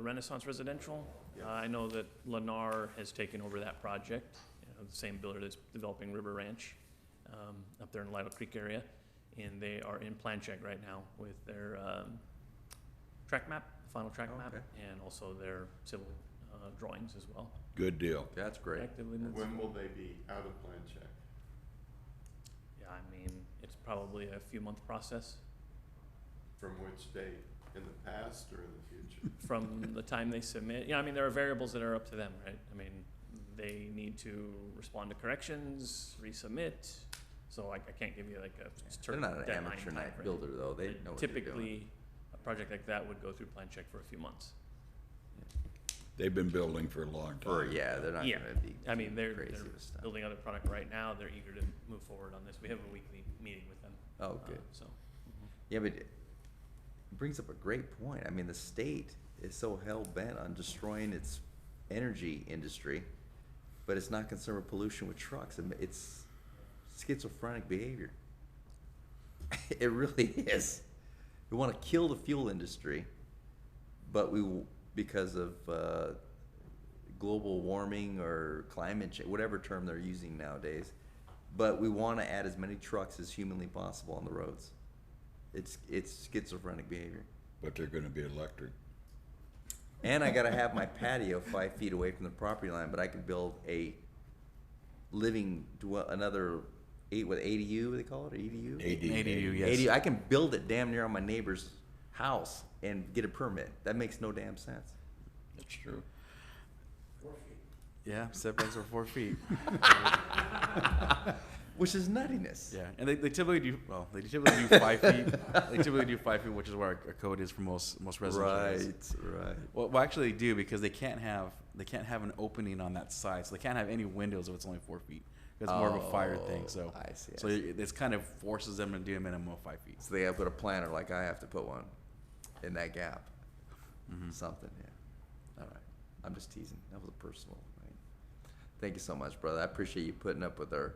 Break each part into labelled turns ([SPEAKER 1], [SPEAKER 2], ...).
[SPEAKER 1] the Renaissance Residential. Uh, I know that Lennar has taken over that project, you know, the same builder that's developing River Ranch um, up there in Lido Creek area. And they are in plan check right now with their um, track map, final track map,
[SPEAKER 2] Okay.
[SPEAKER 1] and also their civil uh, drawings as well.
[SPEAKER 3] Good deal.
[SPEAKER 2] That's great.
[SPEAKER 1] Actively moving.
[SPEAKER 4] When will they be out of plan check?
[SPEAKER 1] Yeah, I mean, it's probably a few month process
[SPEAKER 4] From which date? In the past or in the future?
[SPEAKER 1] from the time they submit. You know, I mean, there are variables that are up to them, right? I mean, they need to respond to corrections, resubmit. So like, I can't give you like a
[SPEAKER 2] They're
[SPEAKER 1] certain
[SPEAKER 2] not an
[SPEAKER 1] deadline
[SPEAKER 2] amateur night
[SPEAKER 1] timeframe.
[SPEAKER 2] builder, though. They
[SPEAKER 1] But
[SPEAKER 2] know what they're doing.
[SPEAKER 1] Typically, a project like that would go through plan check for a few months.
[SPEAKER 3] They've been building for a long time.
[SPEAKER 2] Or, yeah, they're not
[SPEAKER 1] Yeah.
[SPEAKER 2] gonna be
[SPEAKER 1] I mean, they're,
[SPEAKER 2] crazy
[SPEAKER 1] they're
[SPEAKER 2] with stuff.
[SPEAKER 1] building other product right now. They're eager to move forward on this. We have a weekly meeting with them.
[SPEAKER 2] Oh,
[SPEAKER 1] uh,
[SPEAKER 2] good.
[SPEAKER 1] So,
[SPEAKER 2] Yeah, but it brings up a great point. I mean, the state is so hell bent on destroying its energy industry, but it's not concerned with pollution with trucks. And It's schizophrenic behavior. it really is. We want to kill the fuel industry, but we because of uh, global warming or climate change, whatever term they're using nowadays. But we want to add as many trucks as humanly possible on the roads. It's it's schizophrenic behavior.
[SPEAKER 3] But they're gonna be electric.
[SPEAKER 2] And I gotta have my patio five feet away from the property line, but I could build a living dwell another eight with ADU. What do they call it ADU.
[SPEAKER 3] ADU,
[SPEAKER 2] ADU. I can build it damn near on my neighbor's house and get a permit. That makes no damn sense.
[SPEAKER 3] That's true.
[SPEAKER 5] Yeah, setbacks are four feet.
[SPEAKER 2] Which is nuttiness.
[SPEAKER 5] Yeah, and they, they typically do well. They typically do five feet. They typically do five feet, which is where our, our code is for most most residential. areas.
[SPEAKER 2] Right. Right.
[SPEAKER 5] Well, well, actually, they do because they can't have they can't have an opening on that side, so they can't have any windows if it's only four feet. It's more of a fire thing.
[SPEAKER 2] Oh,
[SPEAKER 5] So
[SPEAKER 2] I see, I
[SPEAKER 5] So
[SPEAKER 2] see.
[SPEAKER 5] it- it's kind of forces them to do a minimum of five feet.
[SPEAKER 2] So they have to put a planter like I have to put one in that gap. Something. Yeah. All right. I'm just teasing. That was a personal. Right? Thank you so much, brother. I appreciate you putting up with our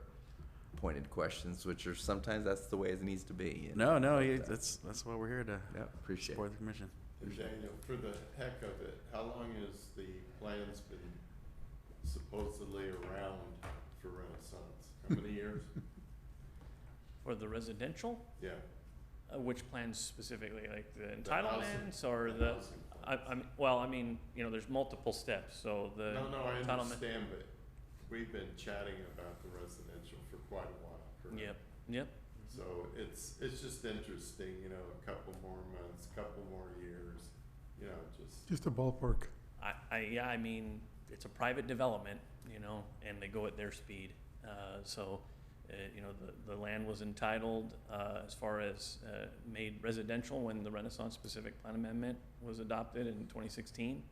[SPEAKER 2] pointed questions, which are sometimes that's the way it needs to be. you know?
[SPEAKER 5] No, no, you- that's that's why we're here to
[SPEAKER 2] Yeah. Appreciate
[SPEAKER 5] support
[SPEAKER 2] it.
[SPEAKER 5] the commission.
[SPEAKER 4] And Daniel, for the heck of it, how long has the plan's been supposedly around for Renaissance? How many years?
[SPEAKER 1] for the residential,
[SPEAKER 4] Yeah.
[SPEAKER 1] Uh, which plans specifically, like the
[SPEAKER 4] housing-
[SPEAKER 1] entitlements or
[SPEAKER 4] the
[SPEAKER 1] the,
[SPEAKER 4] housing
[SPEAKER 1] I,
[SPEAKER 4] plans.
[SPEAKER 1] I'm, well, I mean, you know, there's multiple steps, so the
[SPEAKER 4] No, no, I
[SPEAKER 1] entitlement.
[SPEAKER 4] understand, but we've been chatting about the residential for quite a while, correct?
[SPEAKER 1] Yep, yep,
[SPEAKER 4] So it's, it's just interesting, you know, a couple more months, couple more years, you know, just.
[SPEAKER 6] Just a ballpark.
[SPEAKER 1] I, I, yeah, I mean, it's a private development, you know, and they go at their speed. Uh, so, uh, you know, the, the land was entitled, uh, as far as, uh, made residential when the Renaissance Pacific Plan Amendment was adopted in twenty sixteen.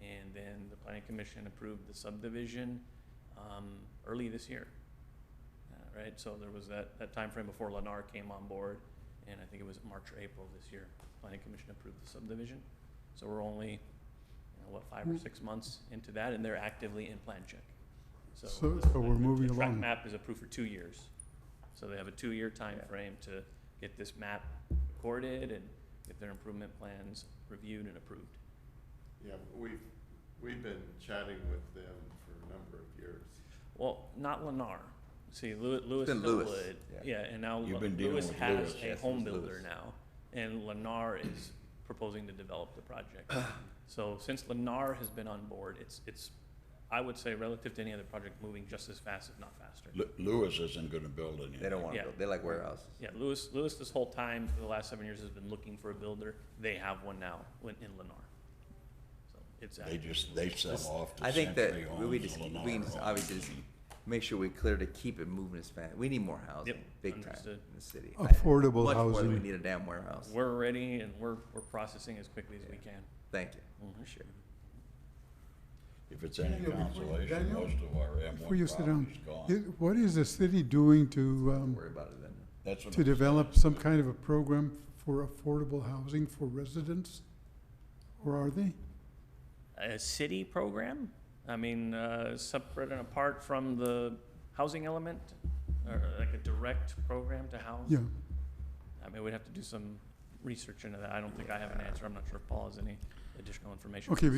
[SPEAKER 1] And then the planning commission approved the subdivision, um, early this year. Uh, right, so there was that, that timeframe before Lennar came on board, and I think it was March or April this year, planning commission approved the subdivision. So we're only, you know, what, five or six months into that, and they're actively in plan check.
[SPEAKER 6] So-
[SPEAKER 1] the-
[SPEAKER 6] so we're
[SPEAKER 1] uh, the-
[SPEAKER 6] moving
[SPEAKER 1] The track
[SPEAKER 6] along.
[SPEAKER 1] map is approved for two years, so they have a two-year time frame to get this map recorded and get their improvement plans reviewed and approved.
[SPEAKER 4] Yeah, we've, we've been chatting with them for a number of years.
[SPEAKER 1] Well, not Lennar. See, Lew- Lewis
[SPEAKER 2] been Lewis,
[SPEAKER 1] Millwood,
[SPEAKER 2] yeah.
[SPEAKER 1] yeah, and now
[SPEAKER 3] You've been dealing
[SPEAKER 1] Lewis
[SPEAKER 3] with
[SPEAKER 1] has
[SPEAKER 3] Lewis.
[SPEAKER 1] a
[SPEAKER 2] Yes,
[SPEAKER 1] home
[SPEAKER 2] it's Lewis.
[SPEAKER 1] builder now, and Lennar is proposing to develop the project. So since Lennar has been on board, it's, it's, I would say relative to any other project, moving just as fast, if not faster.
[SPEAKER 3] Lu- Lewis isn't gonna build anything.
[SPEAKER 2] They don't want to
[SPEAKER 1] Yeah.
[SPEAKER 2] build. They like warehouses.
[SPEAKER 1] Yeah, Lewis, Lewis this whole time, for the last seven years, has been looking for a builder. They have one now in, in Lennar. So it's,
[SPEAKER 3] They
[SPEAKER 1] active.
[SPEAKER 3] just, they sell off
[SPEAKER 2] I
[SPEAKER 3] to
[SPEAKER 2] think that
[SPEAKER 3] Century
[SPEAKER 2] we- we
[SPEAKER 3] Homes,
[SPEAKER 2] just,
[SPEAKER 3] Lennar
[SPEAKER 2] we can just obviously
[SPEAKER 3] Homes.
[SPEAKER 2] just make sure we clear to keep it moving as fast. We need more housing,
[SPEAKER 1] Yep,
[SPEAKER 2] big time in
[SPEAKER 1] understood.
[SPEAKER 2] the city. I-
[SPEAKER 6] Affordable
[SPEAKER 2] Much more than we
[SPEAKER 6] housing.
[SPEAKER 2] need a damn warehouse.
[SPEAKER 1] uh, we're ready and we're, we're processing as quickly as we can.
[SPEAKER 2] Thank you.
[SPEAKER 1] Mhm.
[SPEAKER 2] Appreciate it.
[SPEAKER 3] If it's any
[SPEAKER 6] Daniel, before you-
[SPEAKER 3] consolation,
[SPEAKER 6] Daniel,
[SPEAKER 3] most of our M
[SPEAKER 6] Before
[SPEAKER 3] one
[SPEAKER 6] you sit down,
[SPEAKER 3] property's gone.
[SPEAKER 6] i- what is the city doing to, um,
[SPEAKER 2] Worry about it then.
[SPEAKER 3] That's what
[SPEAKER 6] to
[SPEAKER 3] I'm saying.
[SPEAKER 6] develop some kind of a program for affordable housing for residents? Or are they?
[SPEAKER 1] a city program? I mean, uh, separate and apart from the housing element, or like a direct program to house?
[SPEAKER 6] Yeah,
[SPEAKER 1] I mean, we'd have to do some research into that. I don't think I have an answer. I'm not sure if Paul has any.
[SPEAKER 7] additional information.
[SPEAKER 1] Okay,